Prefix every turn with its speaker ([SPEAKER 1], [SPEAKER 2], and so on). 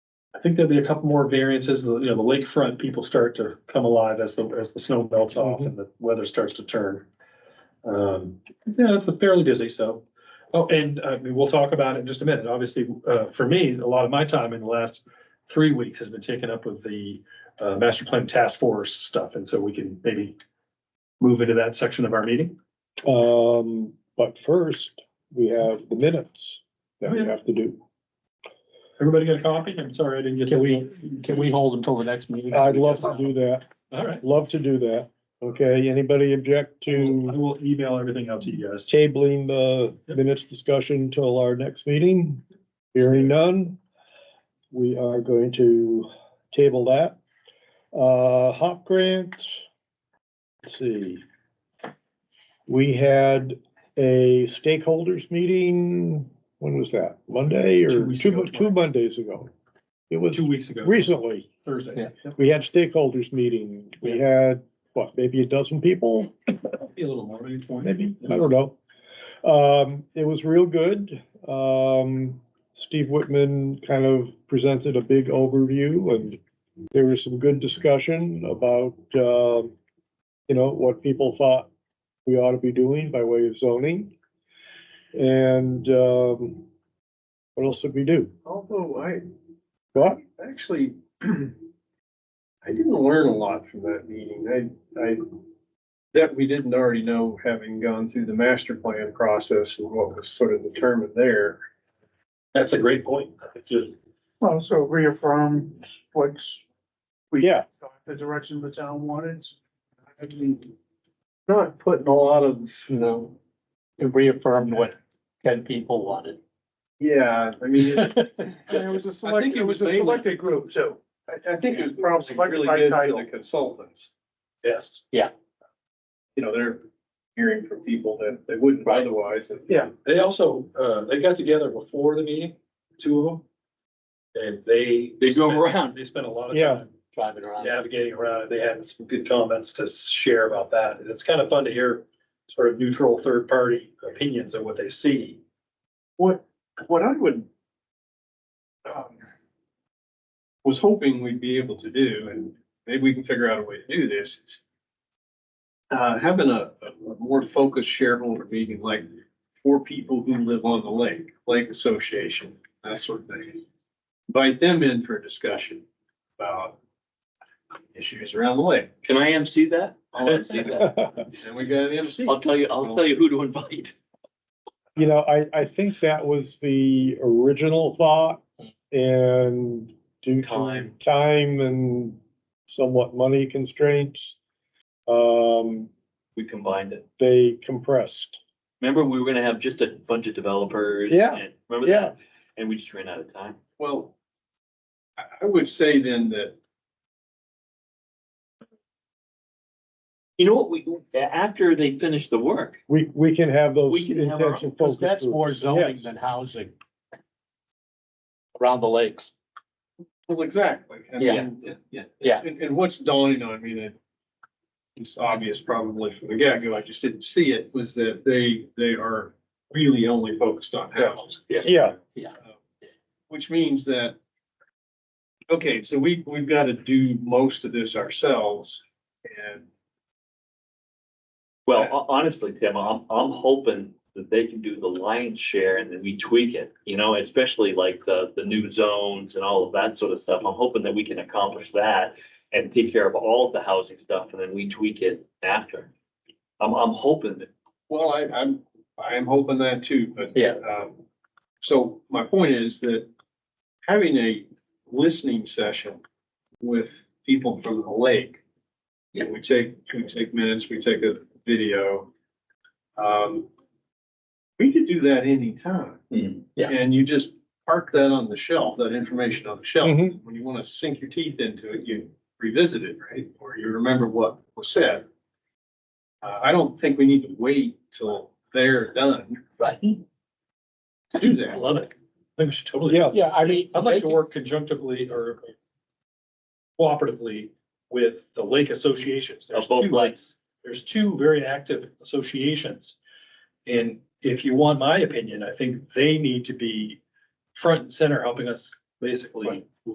[SPEAKER 1] think there'll be a couple more variances, the- you know, the lakefront people start to come alive as the, as the snow melts
[SPEAKER 2] Mm-hmm.
[SPEAKER 1] off and the weather starts to turn. Um, yeah, it's fairly busy, so. Oh, and uh, we'll talk about it in just a minute. Obviously, uh, for me, a lot of my time in the last three weeks has been taken up with the uh, master plan task force stuff, and so we can maybe move into that section of our meeting.
[SPEAKER 3] Um, but first, we have the minutes that we have to do.
[SPEAKER 1] Everybody got a copy? I'm sorry, I didn't get.
[SPEAKER 2] Can
[SPEAKER 1] that.
[SPEAKER 2] we, can we hold until the next meeting?
[SPEAKER 3] I'd love to do that,
[SPEAKER 1] All right,
[SPEAKER 3] love to do that. Okay, anybody object
[SPEAKER 1] I will I
[SPEAKER 3] to
[SPEAKER 1] will email everything out to you guys.
[SPEAKER 3] tabling the minutes discussion till our next meeting? Hearing none, we are going to table that. Uh, HOP grant, let's see. We had a stakeholders meeting, when was that? Monday
[SPEAKER 1] Two
[SPEAKER 3] or
[SPEAKER 1] weeks
[SPEAKER 3] two,
[SPEAKER 1] ago
[SPEAKER 3] mo- two Mondays ago? It was
[SPEAKER 1] Two weeks ago,
[SPEAKER 3] recently.
[SPEAKER 1] Thursday.
[SPEAKER 2] Yeah.
[SPEAKER 1] Yep,
[SPEAKER 3] We had stakeholders meeting. We had, what, maybe a dozen people?
[SPEAKER 1] Be a little more, maybe twenty.
[SPEAKER 3] Maybe, I don't know. Um, it was real good. Um, Steve Whitman kind of presented a big overview and there was some good discussion about, uh, you know, what people thought we ought to be doing by way of zoning. And, um, what else did we do?
[SPEAKER 4] Although I
[SPEAKER 3] What?
[SPEAKER 4] actually, I didn't learn a lot from that meeting. I, I, that we didn't already know, having gone through the master plan process and what was sort of determined there.
[SPEAKER 1] That's a great point.
[SPEAKER 5] Well, so reaffirm what's
[SPEAKER 3] Yeah,
[SPEAKER 5] the direction the town wanted.
[SPEAKER 4] I mean, Not putting a lot of, you know,
[SPEAKER 2] It reaffirmed what ten people wanted.
[SPEAKER 4] yeah, I mean, it-
[SPEAKER 5] And it was a
[SPEAKER 4] I
[SPEAKER 5] select,
[SPEAKER 4] think it
[SPEAKER 5] it was a
[SPEAKER 4] was mainly-
[SPEAKER 5] selected group too.
[SPEAKER 4] I, I think it was
[SPEAKER 5] Selected by
[SPEAKER 4] probably really good
[SPEAKER 5] title.
[SPEAKER 4] for the consultants.
[SPEAKER 1] Yes.
[SPEAKER 4] You know, they're hearing from people that they wouldn't
[SPEAKER 2] Right.
[SPEAKER 4] otherwise. and-
[SPEAKER 5] Yeah.
[SPEAKER 1] They also, uh, they got together before the meeting, two of them. And they.
[SPEAKER 2] They go
[SPEAKER 1] spent-
[SPEAKER 2] around.
[SPEAKER 1] They spent a lot of
[SPEAKER 3] Yeah.
[SPEAKER 1] time
[SPEAKER 2] Driving around.
[SPEAKER 1] navigating around. They had some good comments to share about that. And it's kind of fun to hear sort of neutral third party opinions of what they see.
[SPEAKER 4] What, what I would, um, was hoping we'd be able to do, and maybe we can figure out a way to do this, is uh, having a, a more focused shareholder meeting, like for people who live on the lake, lake association, that sort of thing. Invite them in for a discussion about issues around the lake,
[SPEAKER 6] Can I MC that? I'll MC that.
[SPEAKER 4] and we got an MC.
[SPEAKER 6] I'll tell you, I'll tell you who to invite.
[SPEAKER 3] You know, I, I think that was the original thought and due to
[SPEAKER 1] Time.
[SPEAKER 3] time and somewhat money constraints, um,
[SPEAKER 6] We combined it.
[SPEAKER 3] they compressed.
[SPEAKER 6] Remember, we were gonna have just a bunch of developers.
[SPEAKER 3] Yeah,
[SPEAKER 6] and- Remember that? And we just ran out of time.
[SPEAKER 4] Well, I, I would say then that
[SPEAKER 6] You know what? We, after they finish the work,
[SPEAKER 3] We, we can have those
[SPEAKER 6] We can have our-
[SPEAKER 3] intention
[SPEAKER 2] Because
[SPEAKER 3] focus
[SPEAKER 2] that's
[SPEAKER 3] groups.
[SPEAKER 2] more zoning
[SPEAKER 3] Yes.
[SPEAKER 2] than housing. Around the lakes.
[SPEAKER 4] Well, exactly. I
[SPEAKER 2] Yeah.
[SPEAKER 4] mean,
[SPEAKER 6] Yeah.
[SPEAKER 2] Yeah.
[SPEAKER 4] And, and what's dawning on me that it's obvious probably from the get-go, I just didn't see it, was that they, they are really only focused on houses.
[SPEAKER 3] Yeah,
[SPEAKER 4] Which means that, okay, so we, we've got to do most of this ourselves and
[SPEAKER 6] well, ho- honestly, Tim, I'm, I'm hoping that they can do the lion's share and then we tweak it, you know, especially like the, the new zones and all of that sort of stuff. I'm hoping that we can accomplish that and take care of all of the housing stuff and then we tweak it after. I'm, I'm hoping that
[SPEAKER 4] Well, I, I'm, I am hoping that too, but.
[SPEAKER 2] Yeah.
[SPEAKER 4] um, So my point is that having a listening session with people from the lake.
[SPEAKER 6] Yeah.
[SPEAKER 4] We take, we take minutes, we take a video. Um, we could do that anytime.
[SPEAKER 6] Mm,
[SPEAKER 2] Mm-hmm. yeah.
[SPEAKER 4] And you just park that on the shelf, that information on the shelf.
[SPEAKER 3] Mhm.
[SPEAKER 4] When you want to sink your teeth into it, you revisit it, right? Or you remember what was said. Uh, I don't think we need to wait till they're done
[SPEAKER 2] Right.
[SPEAKER 4] to do
[SPEAKER 6] I
[SPEAKER 4] that.
[SPEAKER 6] love it.
[SPEAKER 1] I think we should totally.
[SPEAKER 3] yeah,
[SPEAKER 2] Yeah, I mean.
[SPEAKER 1] I'd like to work conjunctively or cooperatively with the lake associations.
[SPEAKER 6] Of
[SPEAKER 1] There's
[SPEAKER 6] both
[SPEAKER 1] two-
[SPEAKER 6] legs.
[SPEAKER 1] there's two very active associations. And if you want my opinion, I think they need to be front and center helping us basically